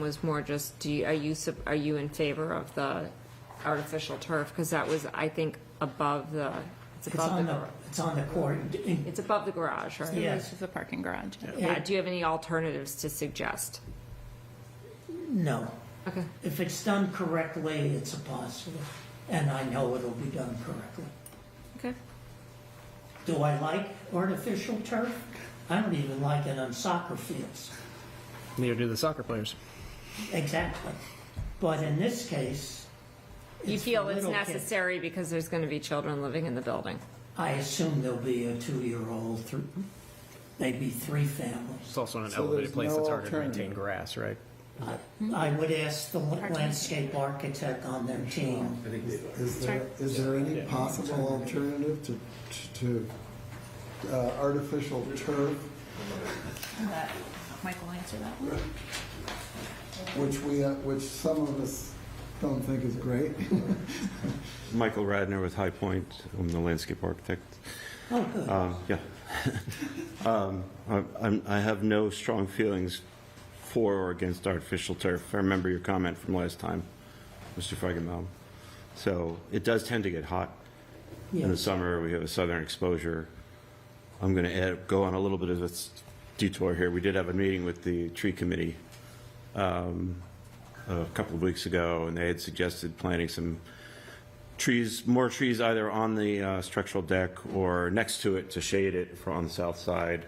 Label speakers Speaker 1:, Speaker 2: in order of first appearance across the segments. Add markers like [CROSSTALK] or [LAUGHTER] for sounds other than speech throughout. Speaker 1: was more just, do you, are you, sup- are you in favor of the artificial turf? Because that was, I think, above the, it's
Speaker 2: It's
Speaker 1: above the,
Speaker 2: on the,
Speaker 1: gar-
Speaker 2: it's on the court.
Speaker 1: it's above the garage, right?
Speaker 2: Yeah.
Speaker 3: This is the parking garage.
Speaker 1: Yeah, do you have any alternatives to suggest?
Speaker 2: No.
Speaker 1: Okay.
Speaker 2: If it's done correctly, it's a positive, and I know it'll be done correctly.
Speaker 3: Okay.
Speaker 2: Do I like artificial turf? I don't even like it on soccer fields.
Speaker 4: Neither do the soccer players.
Speaker 2: Exactly. But in this case,
Speaker 1: You
Speaker 2: It's
Speaker 1: feel
Speaker 2: for
Speaker 1: it's
Speaker 2: little kids.
Speaker 1: necessary because there's going to be children living in the building?
Speaker 2: I assume there'll be a two-year-old, thr- maybe three families.
Speaker 4: It's also in an
Speaker 5: So
Speaker 4: elevated
Speaker 5: there's
Speaker 4: place
Speaker 5: no
Speaker 4: that's harder to maintain
Speaker 5: alternative.
Speaker 4: grass, right?
Speaker 1: Hmm.
Speaker 2: I would ask the landscape architect on their team.
Speaker 5: Is there, is there any possible alternative to, to uh, artificial turf,
Speaker 3: Michael, answer that one.
Speaker 5: which we, uh, which some of us don't think is great? [LAUGHS]
Speaker 6: Michael Radner with High Point. I'm the landscape architect.
Speaker 2: Oh, good.
Speaker 6: Uh, Yeah. Um, I I'm- I have no strong feelings for or against artificial turf. I remember your comment from last time, Mr. Feigenbaum. So it does tend to get hot. In the
Speaker 2: Yes.
Speaker 6: summer, we have a southern exposure. I'm going to add, go on a little bit of a s- detour here. We did have a meeting with the tree committee um, a couple of weeks ago, and they had suggested planting some trees, more trees either on the uh, structural deck or next to it to shade it for- on the south side.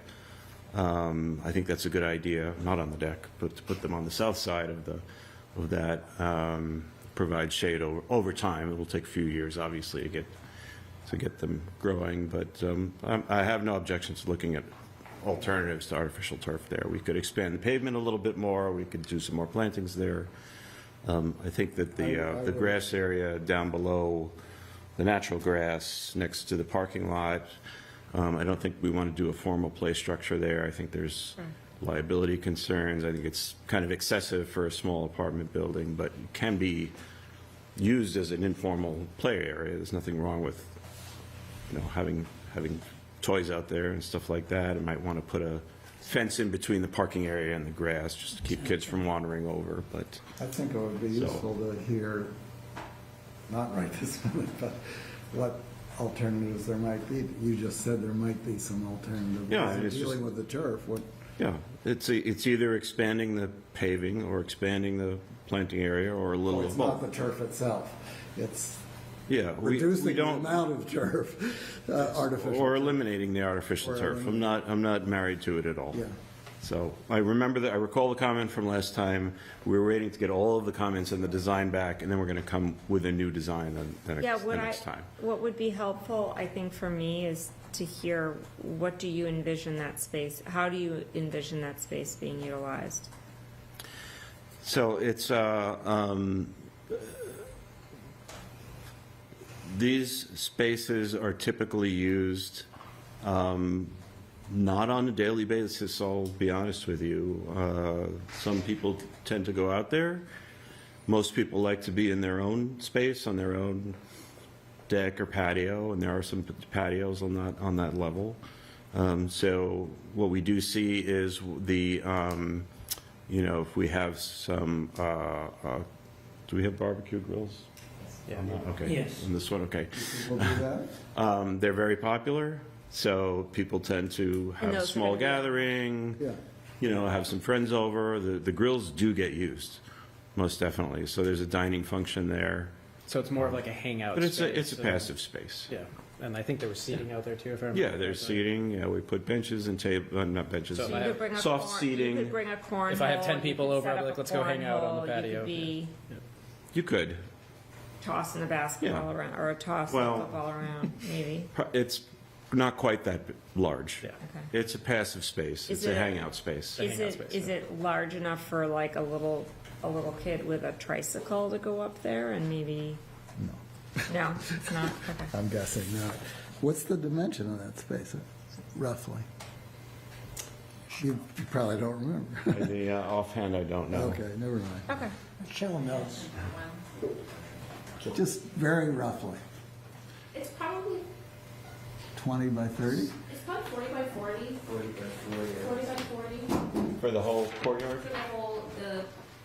Speaker 6: Um, I think that's a good idea, not on the deck, but to put them on the south side of the, of that, um, provide shade over, over time. It will take a few years, obviously, to get, to get them growing, but um, I'm- I have no objections to looking at alternatives to artificial turf there. We could expand the pavement a little bit more, we could do some more plantings there. Um, I think that the, uh, the grass area down below, the natural grass next to the parking lot, um, I don't think we want to do a formal play structure there. I think there's liability concerns. I think it's kind of excessive for a small apartment building, but it can be used as an informal play area. There's nothing wrong with, you know, having, having toys out there and stuff like that. I might want to put a fence in between the parking area and the grass, just to keep kids from wandering over, but.
Speaker 5: I think it would be
Speaker 6: So-
Speaker 5: useful to hear, not right this minute, but what alternatives there might be. You just said there might be some alternatives.
Speaker 6: Yeah, it's just-
Speaker 5: Dealing with the turf, what,
Speaker 6: Yeah, it's, it's either expanding the paving or expanding the planting area or a little
Speaker 5: well,
Speaker 6: of
Speaker 5: it's not the
Speaker 6: both.
Speaker 5: turf itself. It's
Speaker 6: Yeah, we, we
Speaker 5: reducing the
Speaker 6: don't,
Speaker 5: amount of turf, uh, artificial.
Speaker 6: or
Speaker 5: turf.
Speaker 6: eliminating the artificial
Speaker 5: Or
Speaker 6: turf. I'm not, I'm not married to it at all.
Speaker 5: Yeah.
Speaker 6: So I remember that, I recall the comment from last time, we were waiting to get all of the comments and the design back, and then we're going to come with a new design the, the
Speaker 1: Yeah,
Speaker 6: next, the
Speaker 1: what I,
Speaker 6: next time.
Speaker 1: what would be helpful, I think, for me is to hear, what do you envision that space, how do you envision that space being utilized?
Speaker 6: So it's, uh, um, these spaces are typically used, um, not on a daily basis, I'll be honest with you. Uh, Some people tend to go out there. Most people like to be in their own space, on their own deck or patio, and there are some patios on that, on that level. Um, So what we do see is the, um, you know, if we have some, uh, uh, do we have barbecue grills? Uh,
Speaker 4: Yeah.
Speaker 6: Okay.
Speaker 2: Yes.
Speaker 6: On this one, okay.
Speaker 5: We'll do that.
Speaker 6: Um, They're very popular, so people tend to have
Speaker 1: those are
Speaker 6: small
Speaker 1: gonna be-
Speaker 6: gathering.
Speaker 5: Yeah.
Speaker 6: You know, have some friends over. The the grills do get used, most definitely. So there's a dining function there.
Speaker 4: So it's more of like a hangout.
Speaker 6: But it's a,
Speaker 4: space,
Speaker 6: it's a
Speaker 4: so-
Speaker 6: passive space.
Speaker 4: Yeah, and I think there was seating out there too, if I remember.
Speaker 6: Yeah, there's
Speaker 4: correctly.
Speaker 6: seating, yeah, we put benches and table, uh, not benches.
Speaker 4: So
Speaker 1: So you
Speaker 4: I-
Speaker 1: could bring a
Speaker 6: Soft
Speaker 1: corn-
Speaker 6: seating.
Speaker 1: You could bring a cornhole.
Speaker 4: If I have 10
Speaker 1: you
Speaker 4: people
Speaker 1: could
Speaker 4: over,
Speaker 1: set
Speaker 4: I'll be
Speaker 1: up
Speaker 4: like,
Speaker 1: a
Speaker 4: "Let's go hang out on the
Speaker 1: cornhole,"
Speaker 4: patio.
Speaker 1: You could be
Speaker 6: You could.
Speaker 1: tossing a basketball
Speaker 6: Yeah.
Speaker 1: around, or a toss
Speaker 6: Well-
Speaker 1: a football around, maybe.
Speaker 6: Pro- It's not quite that b- large.
Speaker 4: Yeah.
Speaker 6: [LAUGHS]
Speaker 1: Okay.
Speaker 6: It's a passive space.
Speaker 1: Is
Speaker 6: It's a
Speaker 1: it a-
Speaker 6: hangout space.
Speaker 1: Is
Speaker 4: hangout
Speaker 1: it,
Speaker 4: space,
Speaker 1: is
Speaker 4: yeah.
Speaker 1: it large enough for like a little, a little kid with a tricycle to go up there and maybe? No. No, it's not, okay.
Speaker 5: I'm guessing not. What's the dimension of that space, roughly? You you probably don't remember.
Speaker 6: The uh, offhand, I don't
Speaker 5: [LAUGHS]
Speaker 6: know.
Speaker 5: Okay, never mind.
Speaker 1: Okay.
Speaker 2: Michelle knows.
Speaker 5: Just very roughly,
Speaker 7: It's probably,
Speaker 5: 20 by 30?
Speaker 7: it's probably 40 by 40. 40 by 40. 40 by 40
Speaker 6: For the whole courtyard?
Speaker 7: for the whole, the